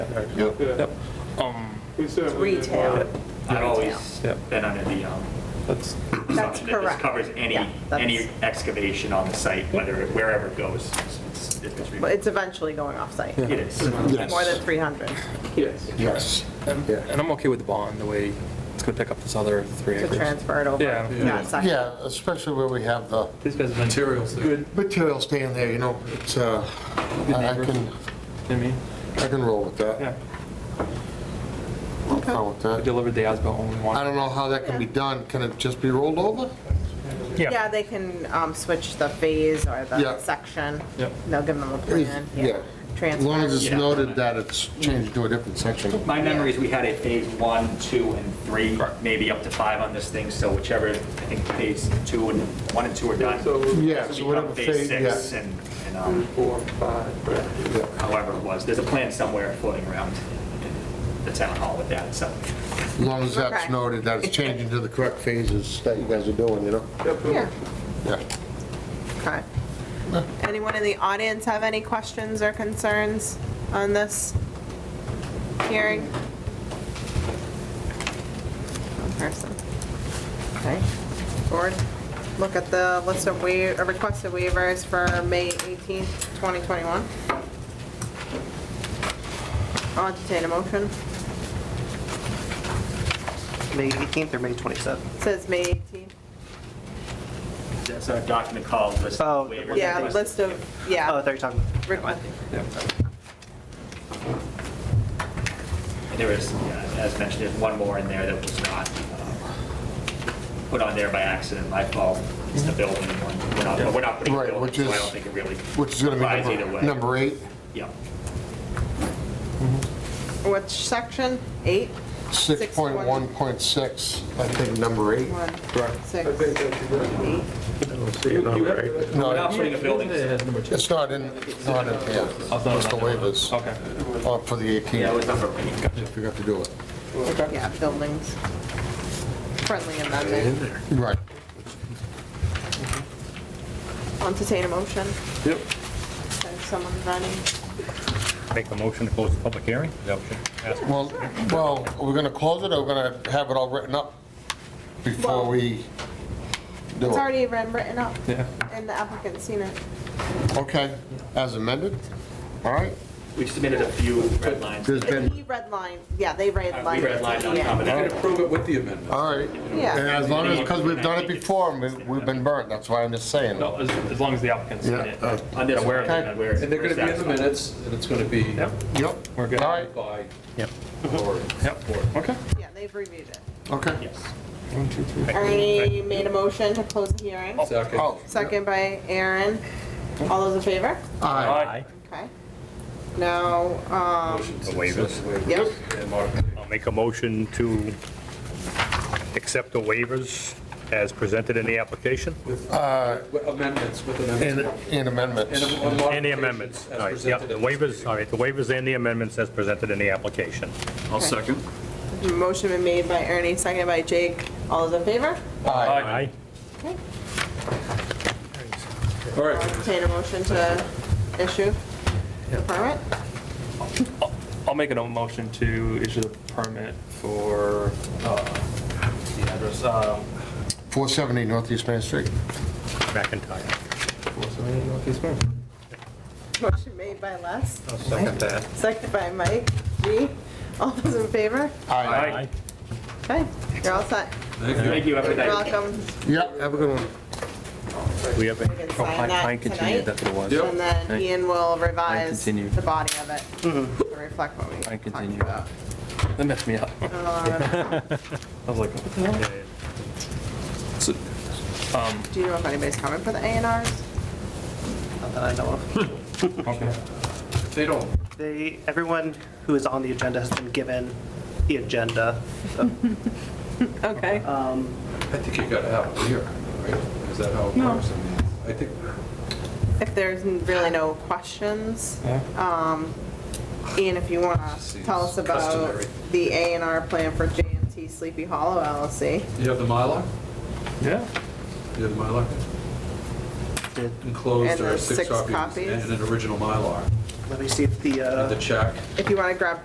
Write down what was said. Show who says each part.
Speaker 1: Yep.
Speaker 2: Yeah.
Speaker 3: Yep, Um,
Speaker 2: We certainly didn't
Speaker 4: Retail.
Speaker 2: want-
Speaker 5: I've always
Speaker 3: Yep.
Speaker 5: been under the, um,
Speaker 3: that's,
Speaker 4: That's
Speaker 5: assumption that this
Speaker 4: correct.
Speaker 5: covers any,
Speaker 4: Yeah, that's-
Speaker 5: any excavation on the site, whether, it- wherever it goes. it's- it's- it's-
Speaker 4: But it's eventually going off-site,
Speaker 5: It is.
Speaker 4: more than 300.
Speaker 2: Yes.
Speaker 1: Yes.
Speaker 3: and I'm okay with the bond, the way it's going to pick up this other three
Speaker 4: to
Speaker 3: acres.
Speaker 4: transfer it over.
Speaker 3: Yeah.
Speaker 4: Not site.
Speaker 1: Yeah, especially where we have the
Speaker 6: This guy's been.
Speaker 3: Materials, good,
Speaker 1: material staying there, you know, it's, uh, I I can,
Speaker 3: I mean,
Speaker 1: I can roll with
Speaker 3: yeah,
Speaker 1: that. I'm fine with
Speaker 3: I
Speaker 1: that.
Speaker 3: delivered the ASBIL only
Speaker 1: I
Speaker 3: one.
Speaker 1: don't know how that can be done. Can it just be rolled over?
Speaker 4: Yeah, they can um, switch the phase or
Speaker 1: Yeah.
Speaker 4: the section.
Speaker 3: Yep.
Speaker 4: They'll give them a plan.
Speaker 1: Yeah. As long as
Speaker 4: Transfer.
Speaker 1: it's noted that it's changed to a different section.
Speaker 5: My memory is we had a phase one, two, and three, maybe up to five on this thing, so whichever, I think phase two and, one and two are done.
Speaker 2: So we-
Speaker 1: Yeah,
Speaker 5: This
Speaker 1: so
Speaker 5: will
Speaker 1: whatever
Speaker 5: become phase
Speaker 1: phase,
Speaker 5: six
Speaker 1: yeah.
Speaker 5: and, and,
Speaker 2: Three,
Speaker 5: um,
Speaker 2: four, five, right.
Speaker 5: however it was, there's a plan somewhere floating around in the town hall with that, so.
Speaker 1: As long as that's
Speaker 4: Okay.
Speaker 1: noted that it's changing to the correct phases that you guys are doing, you know?
Speaker 4: Yeah,
Speaker 1: Yeah.
Speaker 4: okay. Anyone in the audience have any questions or concerns on this hearing? One person. Okay, board, look at the list of wa, uh, requested waivers for May 18th, 2021. I'll entertain a motion.
Speaker 7: May 18th or May 27th?
Speaker 4: Says May 18th.
Speaker 5: That's our document called list
Speaker 7: Oh,
Speaker 5: of waivers.
Speaker 4: Yeah, list of,
Speaker 7: Oh, I
Speaker 4: yeah.
Speaker 7: thought you were talking,
Speaker 4: request-
Speaker 5: There is, yeah, as mentioned, there's one more in there that was not um, put on there by accident, my fault. It's the building one. We're not, but we're not putting
Speaker 1: Right,
Speaker 5: a building,
Speaker 1: which
Speaker 5: so I
Speaker 1: is-
Speaker 5: don't think it really.
Speaker 1: Which is gonna
Speaker 5: applies
Speaker 1: be
Speaker 5: either
Speaker 1: number-
Speaker 5: way.
Speaker 1: number eight,
Speaker 5: Yeah.
Speaker 4: Which section? Eight?
Speaker 1: 6.1.6, I think number eight.
Speaker 4: One,
Speaker 2: I
Speaker 4: six,
Speaker 2: think that's exactly.
Speaker 4: eight.
Speaker 5: We're
Speaker 1: No,
Speaker 5: not putting a building, yeah,
Speaker 6: Number two.
Speaker 1: it's not in, it's not in here. It's the waivers
Speaker 3: Okay,
Speaker 1: uh, for the
Speaker 5: it was
Speaker 1: 18th,
Speaker 5: number eight.
Speaker 1: I forgot to do it.
Speaker 4: Yeah, buildings. Friendly amendment.
Speaker 1: Right.
Speaker 4: I'll Entertain a motion.
Speaker 3: yep,
Speaker 4: If someone's running.
Speaker 8: Make a motion to close the public hearing? Is that what you're asking?
Speaker 1: Well, well, are we gonna close it or we're gonna have it all written up before
Speaker 4: Well-
Speaker 1: we do
Speaker 4: It's
Speaker 1: it?
Speaker 4: already been written up
Speaker 3: yeah.
Speaker 4: and the applicant's seen it.
Speaker 1: Okay, as amended? All right?
Speaker 5: We submitted a few red lines.
Speaker 1: There's been-
Speaker 4: He redlined, yeah,
Speaker 5: Uh, We
Speaker 4: they redlined. it.
Speaker 5: redlined on
Speaker 4: Yeah.
Speaker 5: top of that.
Speaker 2: Approve it with the amendment.
Speaker 1: All right. And
Speaker 4: Yeah,
Speaker 1: as long as, because we've done it before and we- we've been burnt, that's why I'm just saying.
Speaker 6: No, as, as long as the applicant's in it.
Speaker 1: Yeah, uh,
Speaker 5: On this one,
Speaker 1: Okay.
Speaker 5: on where.
Speaker 2: And they're gonna be in the minutes, and it's gonna be
Speaker 6: Yep,
Speaker 1: Yep.
Speaker 3: We're good.
Speaker 1: All right,
Speaker 2: by.
Speaker 6: Yep.
Speaker 2: Lori.
Speaker 6: yep,
Speaker 3: Okay.
Speaker 4: yeah, they've reviewed it.
Speaker 1: okay.
Speaker 5: Yes.
Speaker 3: One, two, three.
Speaker 4: Ernie made a motion to close the hearing.
Speaker 2: Second.
Speaker 1: Oh,
Speaker 4: Second by Aaron. All those in favor?
Speaker 1: aye.
Speaker 6: Aye.
Speaker 4: Okay. Now, um,
Speaker 2: Motion to
Speaker 8: The waivers.
Speaker 2: accept the waivers
Speaker 4: Yep.
Speaker 2: and modification.
Speaker 8: I'll make a motion to accept the waivers as presented in the application.
Speaker 2: With uh, Amendments with amendments.
Speaker 1: And and amendments.
Speaker 2: And a-
Speaker 5: Oh.
Speaker 2: a
Speaker 8: And the
Speaker 2: modification
Speaker 8: amendments.
Speaker 2: as
Speaker 8: All right, yeah,
Speaker 2: presented
Speaker 8: the
Speaker 2: in-
Speaker 8: waivers, all right, the waivers and the amendments as presented in the application.
Speaker 4: I'll second. Motion been made by Ernie, seconded by Jake. All those in favor?
Speaker 1: Aye.
Speaker 8: Aye.
Speaker 2: All
Speaker 4: I'll
Speaker 2: right,
Speaker 4: entertain a motion to issue the permit.
Speaker 3: I'll make a motion to issue the permit for, uh, the address, um,
Speaker 1: 470 Northeast Main Street.
Speaker 8: McIntyre.
Speaker 4: Motion made by Les,
Speaker 6: second that.
Speaker 4: seconded by Mike G. All those in favor?
Speaker 1: Aye.
Speaker 8: Aye.
Speaker 4: Okay, you're all set.
Speaker 5: Thank you,
Speaker 4: You're
Speaker 5: everybody.
Speaker 4: welcome.
Speaker 1: Yeah, have a good one.
Speaker 8: We have,
Speaker 4: You
Speaker 8: a-
Speaker 4: can
Speaker 3: Oh,
Speaker 4: sign
Speaker 3: Pine
Speaker 4: that
Speaker 3: continued, that's
Speaker 4: tonight.
Speaker 3: what it was.
Speaker 2: Yep.
Speaker 4: And then Ian will revise
Speaker 3: continued.
Speaker 4: the body of it to reflect what we
Speaker 3: Pine
Speaker 4: talked
Speaker 3: continued.
Speaker 4: about. Um,
Speaker 3: That messed me up. I
Speaker 4: I don't know,
Speaker 3: was like, what the hell? So, um,
Speaker 4: Do you know if anybody's coming for the A and Rs?
Speaker 7: not that I know of.
Speaker 3: okay.
Speaker 2: they don't,
Speaker 7: They, everyone who is on the agenda has been given the agenda.
Speaker 4: Okay.
Speaker 2: I think you gotta have it here, right? Is that how it works? I mean, I think,
Speaker 4: If there's really no questions,
Speaker 3: Yeah.
Speaker 4: Um, Ian, if you want to
Speaker 2: Seems
Speaker 4: tell us about
Speaker 2: customary.
Speaker 4: the A and R plan for JMT Sleepy Hollow LLC.
Speaker 2: you have the Mylar?
Speaker 3: Yeah.
Speaker 2: You have the Mylar?
Speaker 7: Did-
Speaker 2: Enclosed
Speaker 4: And
Speaker 2: are
Speaker 4: there's
Speaker 2: six
Speaker 4: six
Speaker 2: copies
Speaker 4: copies.
Speaker 2: and an original Mylar.
Speaker 7: Let me see if the,
Speaker 2: And the
Speaker 7: uh,
Speaker 2: check.
Speaker 4: If you want to grab